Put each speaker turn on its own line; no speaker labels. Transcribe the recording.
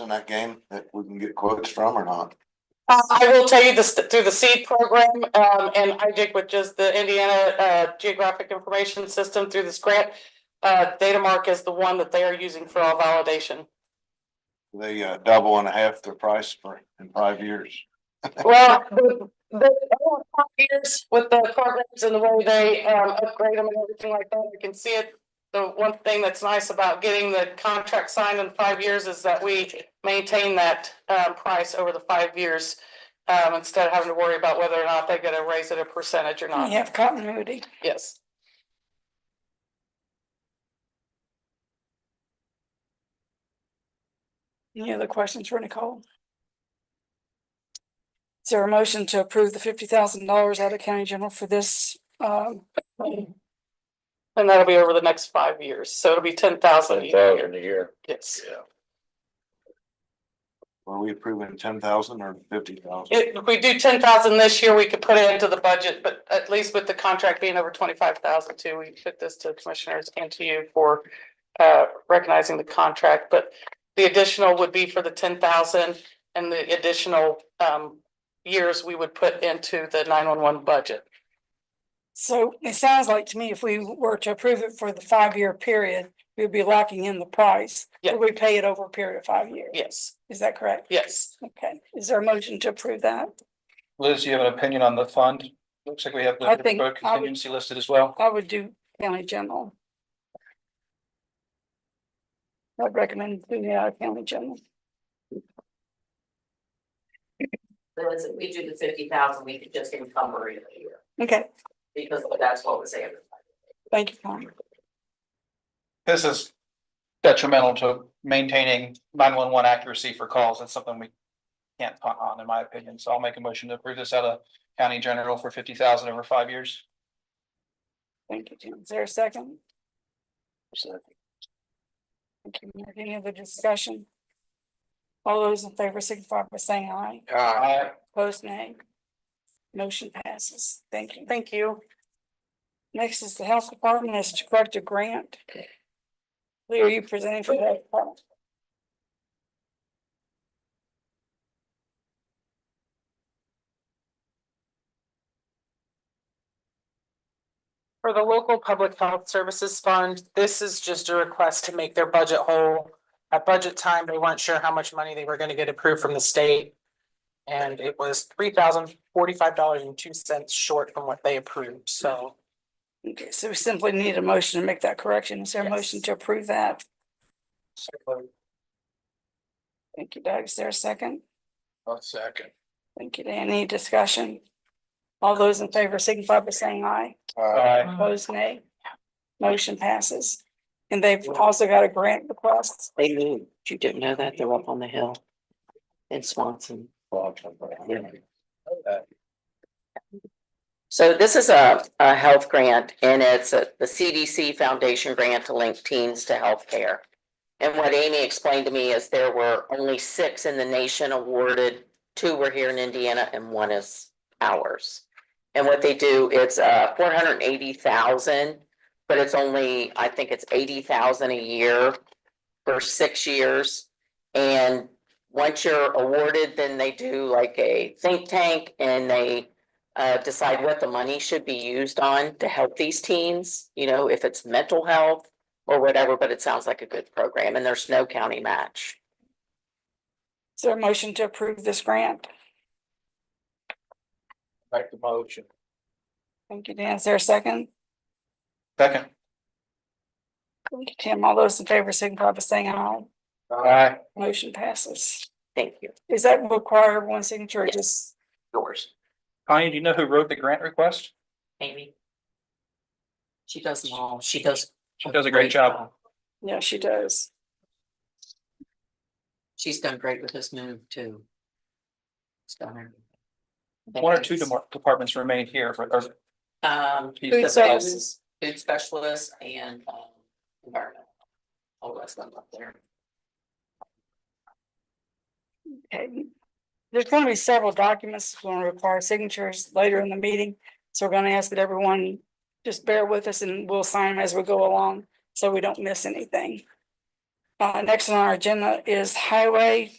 in that game that we can get quotes from or not?
Uh, I will tell you this, through the seed program, um, and IJIC, which is the Indiana, uh, Geographic Information System through this grant. Uh, Datamark is the one that they are using for all validation.
They uh double and a half their price for in five years.
Well, the, the, over five years with the programs and the way they, um, upgrade them and everything like that, you can see it. The one thing that's nice about getting the contract signed in five years is that we maintain that, um, price over the five years. Um, instead of having to worry about whether or not they're gonna raise it a percentage or
You
not,
have continuity.
yes.
Any other questions for Nicole? Is there a motion to approve the fifty thousand dollars out of county general for this? um,
And that'll be over the next five years, so it'll be ten thousand a
Ten thousand
year,
a year,
yes.
yeah.
Were we approving ten thousand or fifty thousand?
If we do ten thousand this year, we could put it into the budget, but at least with the contract being over twenty-five thousand too, we put this to commissioners and to you for. Uh, recognizing the contract, but the additional would be for the ten thousand and the additional um. Years we would put into the nine-one-one budget.
So it sounds like to me, if we were to approve it for the five-year period, we'd be locking in the price.
Yeah.
We pay it over a period of five years.
Yes,
Is that correct?
yes.
Okay. Is there a motion to approve that?
Liz, do you have an opinion on the fund? Looks like we have
I
the
think
Pittsburgh
I would-
contingency listed as well.
I would do county general. I'd recommend doing it out of county general.
So it's, if we do the fifty thousand, we could just encumber it a year,
Okay,
because that's what was advertised.
thank you, Tom.
This is detrimental to maintaining nine one one accuracy for calls. That's something we can't punt on, in my opinion. So I'll make a motion to approve this out of county general for fifty thousand over five years.
Thank you, Tim. Is there a second? Thank you. Mark. Any other discussion? All those in favor signify by saying aye.
Aye.
Opposed, nay. Motion passes. Thank you.
Thank you.
Next is the health department is to correct a grant. Lee, are you presenting for the health department?
For the local public health services fund, this is just a request to make their budget whole. At budget time, they weren't sure how much money they were gonna get approved from the state. And it was three thousand forty-five dollars and two cents short from what they approved, so.
Okay, so we simply need a motion to make that correction. Is there a
Yes.
motion to approve that? Thank you, Doug. Is there a second?
One second.
Thank you, Dan. Any discussion? All those in favor signify by saying aye.
Aye.
Opposed, nay. Motion passes. And they've also got a grant request.
They moved, you didn't know that, they're up on the hill in Swanson. So this is a, a health grant and it's a- the CDC Foundation grant to link teens to healthcare. And what Amy explained to me is there were only six in the nation awarded, two were here in Indiana and one is ours. And what they do, it's uh four hundred and eighty thousand, but it's only, I think it's eighty thousand a year for six years. And once you're awarded, then they do like a think tank and they uh, decide what the money should be used on to help these teens, you know, if it's mental health or whatever, but it sounds like a good program and there's no county match.
Is there a motion to approve this grant?
Back to motion.
Thank you, Dan. Is there a second?
Second.
Thank you, Tim. All those in favor signify by saying aye.
Aye.
Motion passes.
Thank you.
Does that require one signature or just?
Yours,
Connie, do you know who wrote the grant request?
Amy. She does them all. She does.
She does a great job.
Yeah, she does.
She's done great with this move too. It's done everything.
One or two demar- departments remain here for, or
Um,
She's
Food
the
services.
best food specialist and um environmental. Oh, that's one up there.
Okay. There's gonna be several documents that's gonna require signatures later in the meeting, so we're gonna ask that everyone just bear with us and we'll sign them as we go along, so we don't miss anything. Uh, next on our agenda is highway